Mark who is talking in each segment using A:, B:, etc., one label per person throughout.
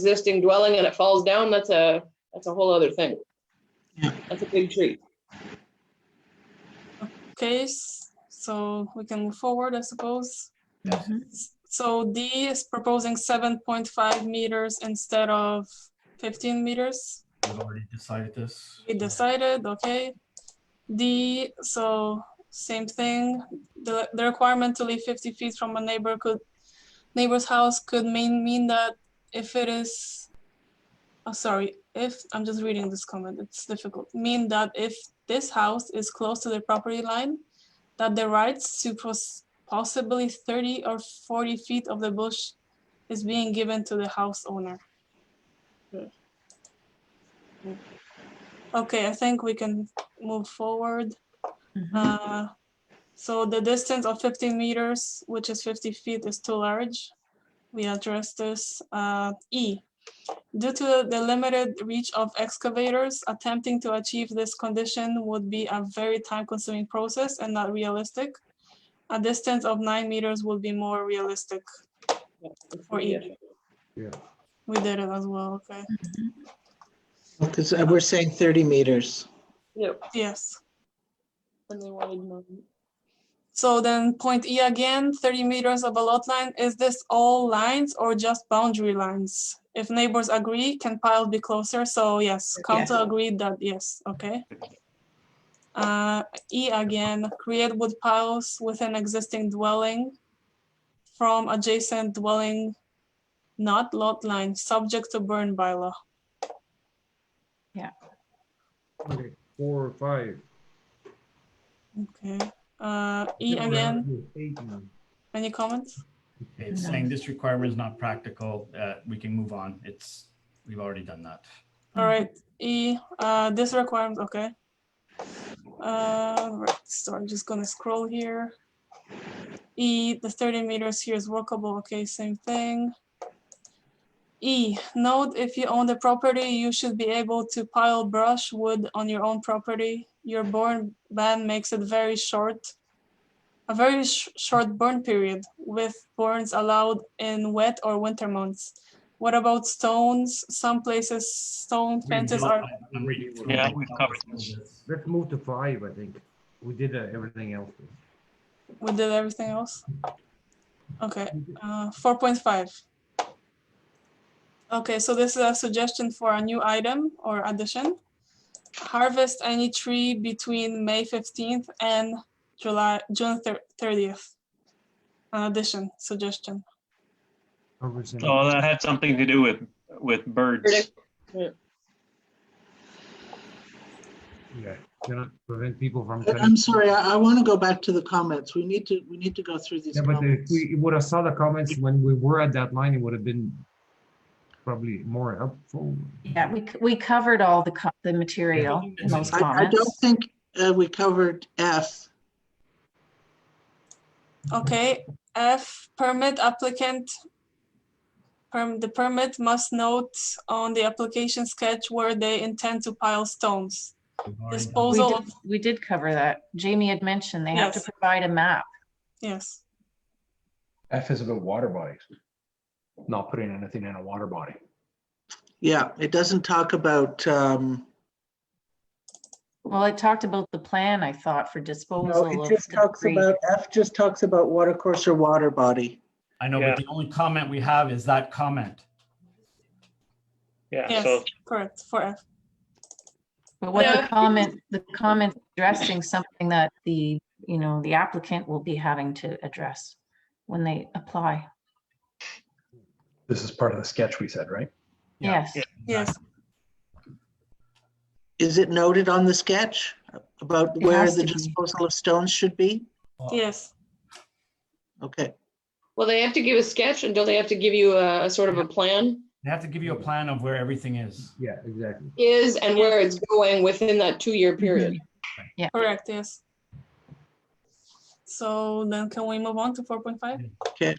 A: existing dwelling and it falls down, that's a, that's a whole other thing.
B: Yeah.
A: That's a big tree.
C: case, so we can move forward, I suppose.
B: Yeah.
C: So D is proposing seven point five meters instead of fifteen meters.
D: We've already decided this.
C: We decided, okay. D, so same thing, the, the requirement to leave fifty feet from a neighbor could, neighbor's house could mean, mean that if it is, oh, sorry, if, I'm just reading this comment, it's difficult, mean that if this house is close to the property line, that the rights to pos- possibly thirty or forty feet of the bush is being given to the house owner. Okay, I think we can move forward. Uh, So the distance of 50 meters, which is 50 feet, is too large. We address this. Uh, E, due to the limited reach of excavators, attempting to achieve this condition would be a very time-consuming process and not realistic. A distance of nine meters would be more realistic. For E. We did it as well, okay?
B: Because uh, we're saying 30 meters.
A: Yep,
C: Yes.
A: and they wanted more.
C: So then point E again, thirty meters above lot line, is this all lines or just boundary lines? If neighbors agree, can pile be closer? So yes, council agreed that, yes, okay. Uh, E again, create wood piles within existing dwelling from adjacent dwelling, not lot line, subject to burn bylaw.
E: Okay, four or five.
C: Okay, uh, E
E: Yeah, we're
C: again,
E: at Eight now.
C: any comments?
D: It's saying this requirement is not practical, uh, we can move on, it's, we've already done that.
E: Mm-hmm.
C: All right, E, uh, this requirement, okay. Uh, right, so I'm just gonna scroll here. E, the thirty meters here is workable, okay, same thing. E, note if you own the property, you should be able to pile brush wood on your own property. Your burn ban makes it very short. A very sh- short burn period with burns allowed in wet or winter months. What about stones? Some places stone fences are,
D: I'm reading through
F: Yeah,
D: it.
F: we've covered this.
E: Let's move to five, I think. We did uh, everything else.
C: we did everything else. Okay, uh, four point five. Okay, so this is a suggestion for a new item or addition. Harvest any tree between May fifteenth and July, June thirtieth. An addition, suggestion.
E: Represent-
F: Oh, that had something to do with, with birds.
A: Predict-
E: Yeah, cannot prevent people from. cutting-
B: I'm sorry, I, I want to go back to the comments. We need to, we need to go through these
E: Yeah, but if
B: comments.
E: we would have saw the comments when we were at that line, it would have been probably more helpful.
G: Yeah, we, c- we covered all the, co- the material in those
B: I, I don't
G: comments.
B: think uh, we covered F.
C: Okay, F, permit applicant. Perm, the permit must note on the application sketch where they intend to pile stones.
D: We've already done
G: We
C: Disposal
G: did,
C: of,
G: we did cover that. Jamie had mentioned they have to
C: Yes.
G: provide a map.
C: yes.
H: F is about water bodies. Not putting anything in a water body.
B: Yeah, it doesn't talk about, um,
G: Well, it talked about the plan, I thought, for
B: no,
G: disposal
B: it
G: of
B: just talks
G: debris.
B: about, F just talks about water course or water body.
D: I know,
F: Yeah.
D: but the only comment we have is that comment.
F: Yeah, so
C: Yes, correct, for F.
G: But what
A: Yeah.
G: the comment, the comment addressing something that the, you know, the applicant will be having to address when they apply.
H: This is part of the sketch we said, right?
D: Yeah.
G: Yes,
F: Yeah.
C: Yes,
B: Is it noted on the sketch about
G: It
B: where
G: has
B: the
G: to be.
B: disposal of stones should be?
C: yes,
B: Okay,
A: Well, they have to give a sketch and don't they have to give you a, a sort of a plan?
D: They have to give you a plan of where everything is.
E: Yeah, exactly.
A: Is and where it's going within that two-year period.
C: correct, yes. So then can we move on to four point five?
B: Okay.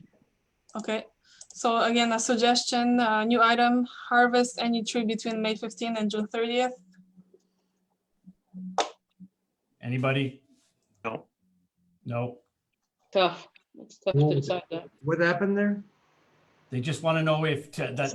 C: Okay, so again, a suggestion, uh, new item, harvest any tree between May fifteen and June thirtieth.
D: Anybody?
F: No.
D: No,
A: Tough. It's tough
E: Well,
A: to decide that.
E: What happened there?
D: they just want to know if, t- that